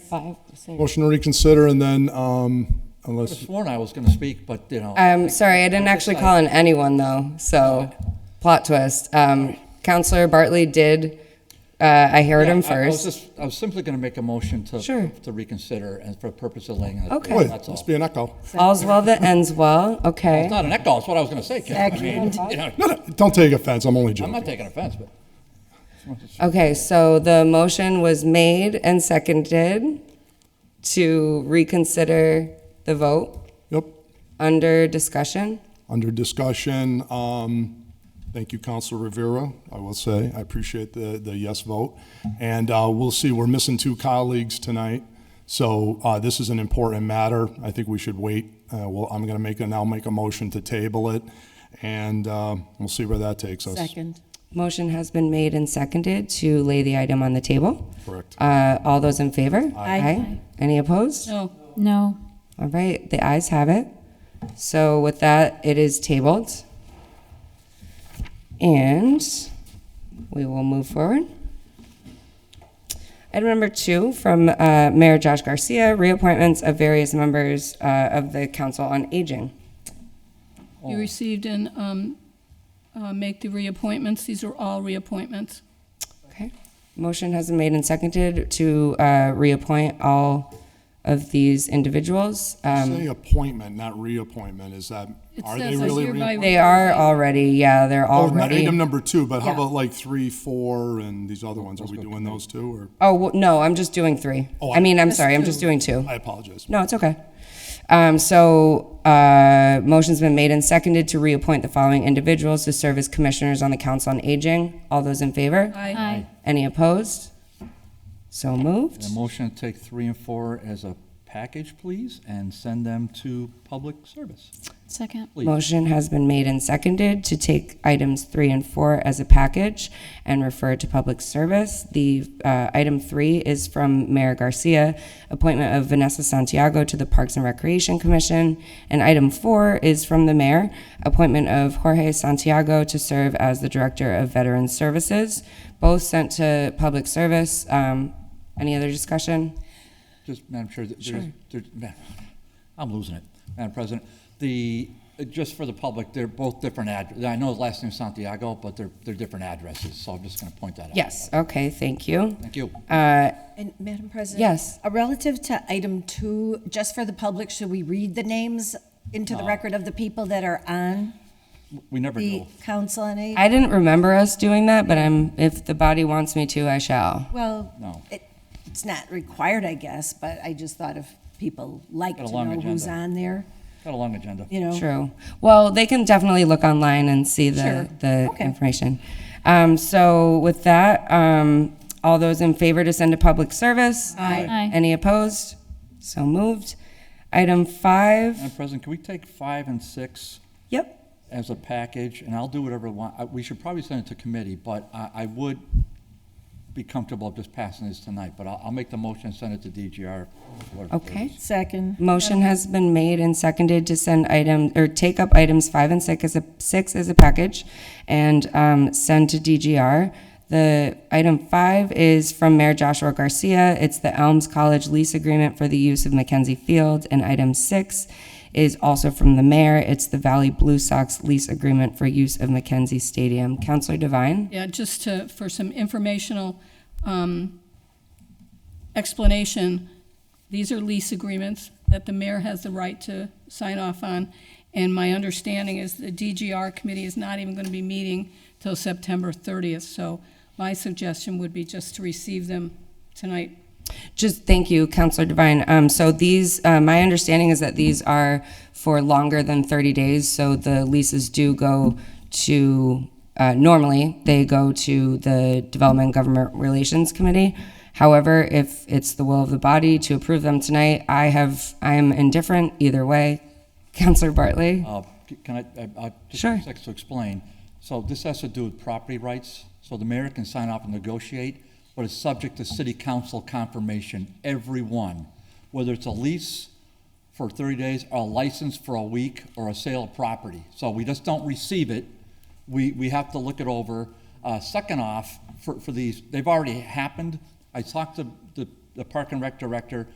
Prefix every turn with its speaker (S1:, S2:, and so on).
S1: five, six.
S2: Motion to reconsider, and then, um,
S3: I
S2: unless,
S3: sworn I was going to speak, but, you know,
S1: Um, sorry, I didn't actually call on anyone though, so plot twist. Um, Counselor Bartley did, uh, I heard him
S3: I- I
S1: first.
S3: was just, I was simply going to make a motion to,
S1: Sure.
S3: to reconsider and for purpose of laying it.
S1: Okay.
S2: wait,
S3: That's all.
S2: must be an echo.
S1: All's well that ends well,
S3: It's
S1: okay.
S3: not an echo, it's what I was going to say, Ken. I mean, you know,
S2: No, no, don't take offense, I'm only
S3: I'm
S2: joking.
S3: not taking offense, but.
S1: Okay, so the motion was made and seconded to reconsider the vote
S2: Yep,
S1: under discussion.
S2: under discussion, um, thank you, Counselor Rivera, I will say, I appreciate the, the yes vote. And, uh, we'll see, we're missing two colleagues tonight, so, uh, this is an important matter, I think we should wait. Uh, well, I'm gonna make, a now make a motion to table it, and, uh, we'll see where that takes us.
S4: Second.
S1: Motion has been made and seconded to lay the item on the table.
S2: Correct.
S5: Um,
S1: Uh, all those in favor?
S4: Aye.
S1: Any opposed?
S4: No. No.
S1: All right, the ayes have it. So with that, it is tabled. And we will move forward. Item number two from uh, Mayor Josh Garcia, reappointments of various members uh, of the Council on Aging.
S5: You received and um, uh, make the reappointments. These are all reappointments.
S1: Okay. Motion has been made and seconded to uh, reappoint all of these individuals. Um,
S2: Say appointment, not reappointment, is that,
S5: It
S2: are they
S5: says
S2: really
S5: hereby
S2: reappointed?
S1: They are already, yeah, they're
S2: Oh, not
S1: already.
S2: item number two, but how
S1: Yeah.
S2: about like three, four, and these other ones? Are we doing those two, or?
S1: Oh, well, no, I'm just doing three.
S2: Oh,
S1: I mean, I'm
S2: just
S1: sorry, I'm just doing two.
S2: I apologize.
S1: No, it's okay. Um, so, uh, motion's been made and seconded to reappoint the following individuals to serve as commissioners on the Council on Aging. All those in favor?
S5: Aye.
S4: Aye.
S1: Any opposed? So moved.
S3: A motion to take three and four as a package, please, and send them to public service.
S4: Second.
S3: Please.
S1: Motion has been made and seconded to take items three and four as a package and refer to public service. The uh, item three is from Mayor Garcia, appointment of Vanessa Santiago to the Parks and Recreation Commission. And item four is from the mayor, appointment of Jorge Santiago to serve as the Director of Veteran Services. Both sent to public service. Um, Any other discussion?
S3: Just, Madam Chair, th- there's, there's, man, I'm losing it, Madam President. The, uh, just for the public, they're both different addresses. I know the last name's Santiago, but they're, they're different addresses, so I'm just going to point that out.
S1: Yes, okay, thank you.
S3: Thank you.
S1: Uh,
S6: And Madam President?
S1: Yes.
S6: uh, Relative to item two, just for the public, should we read the names into the record of the people that are on
S3: We never
S6: the
S3: knew.
S6: council on aging?
S1: I didn't remember us doing that, but I'm, if the body wants me to, I shall.
S3: No.
S6: Well, it- it's not required, I guess, but I just thought if people like to
S3: Got a long
S6: know who's
S3: agenda.
S6: on there,
S3: Got a long agenda.
S6: you know?
S1: True. Well, they can definitely look online and see the,
S6: Sure.
S1: the
S6: Okay.
S1: information. Um, so with that, um, all those in favor to send to public service?
S6: Aye.
S4: Aye.
S1: Any opposed? So moved. Item five,
S3: Madam Uh, President, can we take five and six
S1: yep.
S3: as a package? And I'll do whatever I want. I- We should probably send it to committee, but I, I would be comfortable just passing this tonight, but I'll, I'll make the motion and send it to DGR. whatever it
S1: Okay.
S3: is.
S6: Second.
S1: Motion has been made and seconded to send item, or take up items five and six as a, six as a package and um, send to DGR. The item five is from Mayor Joshua Garcia. It's the Elms College lease agreement for the use of Mackenzie Field. And item six is also from the mayor. It's the Valley Blue Sox lease agreement for use of Mackenzie Stadium. Counselor Devine?
S5: Yeah, just to, for some informational um, explanation, these are lease agreements that the mayor has the right to sign off on. And my understanding is the DGR committee is not even going to be meeting till September 30th. So my suggestion would be just to receive them tonight.
S1: Just, thank you, Counselor Devine. Um, so these, uh, my understanding is that these are for longer than thirty days, so the leases do go to, uh, normally, they go to the Development and Government Relations Committee. However, if it's the will of the body to approve them tonight, I have, I am indifferent either way. Counselor Bartley?
S3: Uh, c- Can I, I- I, just
S1: Sure.
S3: a sec to explain. So this has to do with property rights, so the mayor can sign off and negotiate, but it's subject to city council confirmation, every one, whether it's a lease for 30 days, or a license for a week, or a sale of property. So we just don't receive it, we, we have to look it over. Uh, Second off, for, for these, they've already happened. I talked to the the park and rec director